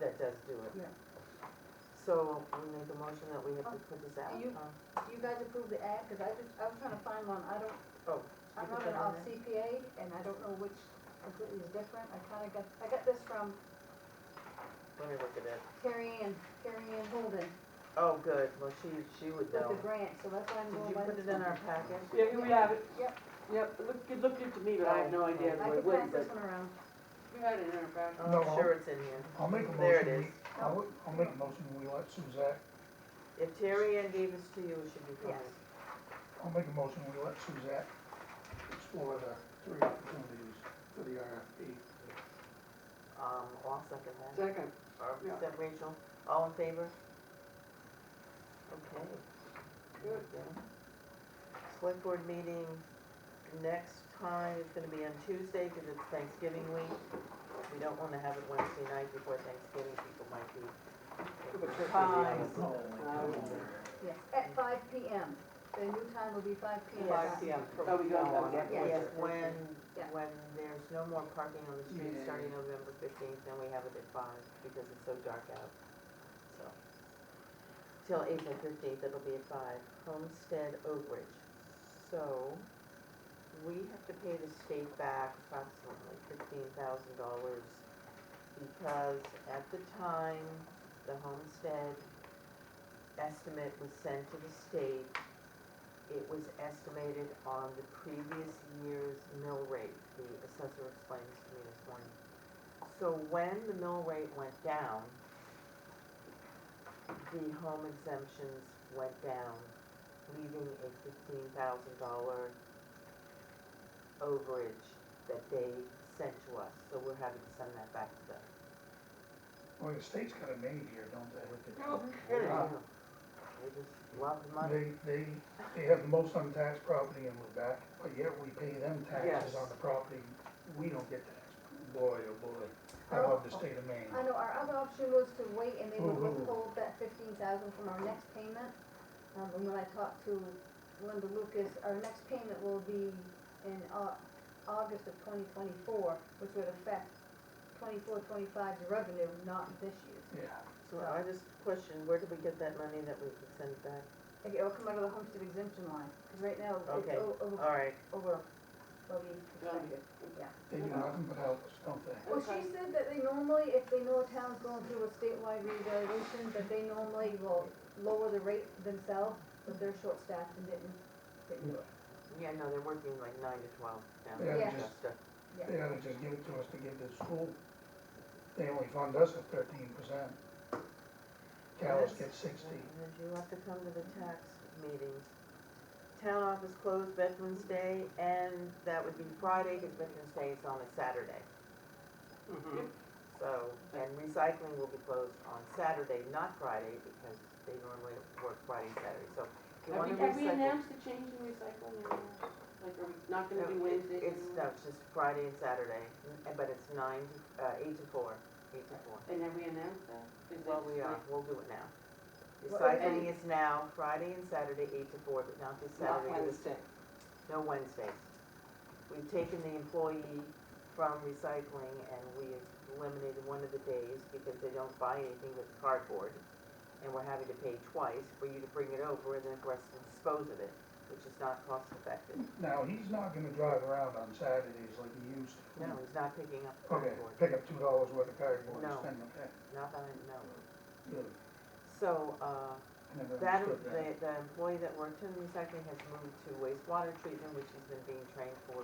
guys do it. Yeah. So we make a motion that we have to put this out. Uh, Do you- huh? Do you guys approve the ad? Cause I just, I was trying to find one, I don't, Oh. I'm you put not that an on off CPA and I don't know which completely is different. I kinda got, I got this from there? Let me look at it. Carrie Ann, Carrie Ann Holden Oh, good, well, she, she would with the know. grant, so that's why I'm Did going you by put this it in one. our packet? Yeah, here we have it. Yep. Yep, it looked, it looked good to me, but I have no idea I what could it pass was, this but one around. we had it in our packet. Oh, I'm sure it's in here. I'll make a There it motion, is. we- I'll, wi- I'll make a motion, we let Suzette, If Terry Ann gave this to you, it should be fine. Yes. I'll make a motion, we let Suzette explore the three opportunities for the RFP. Um, I'll second that. Second, Or, yeah. is that Rachel? All in favor? Okay. Good. Yeah. Select board meeting next time, it's gonna be on Tuesday, cause it's Thanksgiving week. We don't wanna have it Wednesday night before Thanksgiving, people might be. Pies. Yes, at five P M. The new time will be five P Yes. M. five P M. Oh, we got that, yeah. Yes, Yeah. when, Yeah. when there's no more parking on the street Yeah. starting November fifteenth, then we have it at five, because it's so dark out, so. Till April fifteenth, it'll be at five, Homestead Oak Ridge. So, we have to pay the state back approximately fifteen thousand dollars, because at the time, the Homestead estimate was sent to the state, it was estimated on the previous year's mill rate, the assessor explained this to me this morning. So when the mill rate went down, the home exemptions went down, leaving a fifteen thousand dollar overage that they sent to us, so we're having to send that back to them. Well, the state's got a maid here, don't they? Oh, Kidding, wow. yeah. They just love money. They, they, they have the most untaxed property in Lubec, but yet we pay them taxes Yes. on the property, we don't get taxed. Boy, oh boy, I love the state of Maine. I know, our other option was to wait and they would Mhm. withhold that fifteen thousand from our next payment. Um, and when I talked to Linda Lucas, our next payment will be in Au- August of twenty twenty-four, which would affect 24-25's revenue, not this year's. Yeah, So I just questioned, where did we get that money that we could send back? Okay, it'll come out of the homestead exemption line, because right now it's Okay. o- over, All right, over, what we expected. they do nothing but help us, don't they? Well, she said that they normally, if they know a town's going through a statewide revaluation, that they normally will lower the rate themselves, but they're short-staffed and didn't, didn't do it. Yeah, no, they're working like nine to twelve down Yeah, in Yeah. just- Augusta. They ought to just give it to us to give to the school. They only fund us at thirteen percent. Callis gets sixty. And you have to come to the tax meetings. Town office closed Veterans Day, and that would be Friday, because Veterans Day is on a Saturday. Mm-hmm. Mhm. So, and recycling will be closed on Saturday, not Friday, because they normally work Friday, Saturday, so. if you Have want we, to have we recycle- announced the change in recycling or, like, are we not gonna do No, it- Wednesdays? It's, no, anymore? it's just Friday and Saturday, and- but it's nine, to- uh, eight to four, eight to four. And have we announced that? 'Cause Well, that's we are, like- we'll do it now. Well, Recycling is now, Friday and Saturday, eight to four, but not this Not Saturday, this, Wednesday. no Wednesdays. We've taken the employee from recycling and we eliminated one of the days because they don't buy anything but cardboard. And we're having to pay twice for you to bring it over and then for us to dispose of it, which is not cost effective. Now, he's not gonna drive around on Saturdays like he used to. No, Mm-hmm. he's not picking up Okay, cardboard, pick up two dollars worth of cardboard and No. spend it. not that I know. Good. So, uh, I never That, understood the, the employee that worked in recycling has moved to wastewater treatment, which he's been being trained for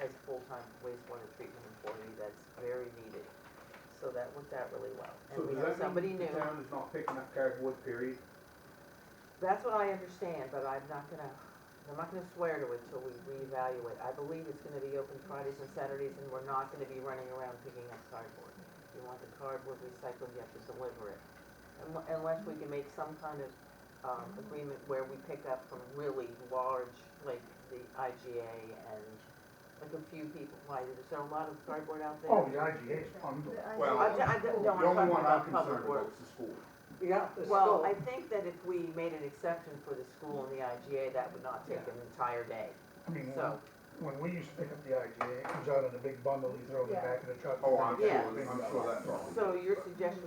as full-time wastewater treatment employee, that's very needed. So that worked out really well, and So we have does that somebody mean new, The town is not picking up cardboard, period? that's what I understand, but I'm not gonna, I'm not gonna swear to it till we reevaluate. I believe it's gonna be open Fridays and Saturdays, and we're not gonna be running around picking up cardboard. If you want the cardboard recycled, you have to deliver it, Unle- unless we can make some kind of, um, agreement where we pick up from really large, like the IGA and like a few people, why, there's a lot of cardboard out there. Oh, the IGA is bundled. The Well, I, idea I was- don't, The no, I'm only talking one I'm about concerned public about works. is the school. Yeah, the Well, skull. I think that if we made an exception for the school and the IGA, that would not take an entire day, I mean, when- so. when we used to pick up the IGA, it comes out in a big bundle, you throw it in the Yeah. back of the truck. Oh, I'm Yeah. sure, I'm sure that's wrong. So your suggestion